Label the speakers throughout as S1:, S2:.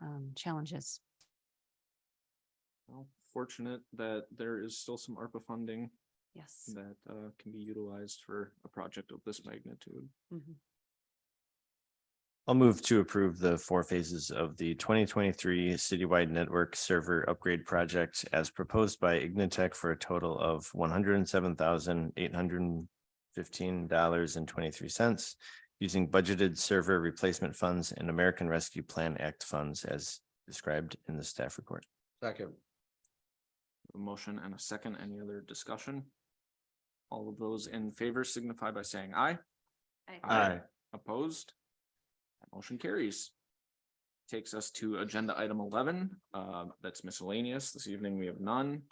S1: um, challenges.
S2: Well, Fortunate that there is still some ARPA funding
S1: Yes.
S2: that uh can be utilized for a project of this magnitude.
S1: Mhm.
S3: I'll move to approve the four phases of the twenty twenty-three citywide network server upgrade project as proposed by Ignitec for a total of one hundred and seven thousand eight hundred and fifteen dollars and twenty-three cents using budgeted server replacement funds and American Rescue Plan Act funds as described in the staff report.
S4: Second.
S2: A motion and a second, any other discussion? All of those in favor signify by saying aye.
S3: Aye.
S2: Opposed? That Motion carries. Takes us to agenda item eleven, uh, that's miscellaneous. This evening we have none.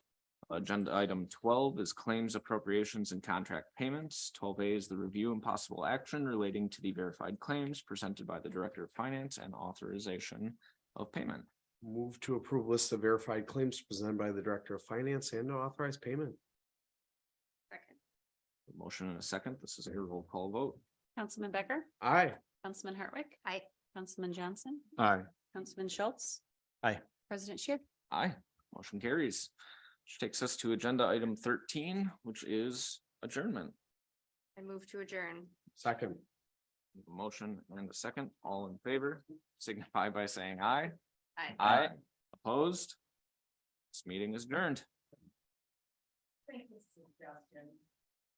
S2: Agenda item twelve is claims appropriations and contract payments. Twelve A is the review and possible action relating to the verified claims presented by the Director of Finance and authorization of payment.
S4: Move to approve list of verified claims presented by the Director of Finance and authorized payment.
S2: Motion and a second. This is a roll call vote.
S1: Councilman Becker,
S4: Aye.
S1: Councilman Hartwick. Aye. Councilman Johnson,
S3: Aye.
S1: Councilman Schultz.
S3: Aye.
S1: President Shear.
S2: Aye, motion carries. Which takes us to agenda item thirteen, which is adjournment.
S5: I move to adjourn.
S4: Second.
S2: Motion and a second, all in favor, signify by saying aye.
S5: Aye.
S2: Aye. Opposed? This meeting is adjourned.
S5: Thank you, Justin.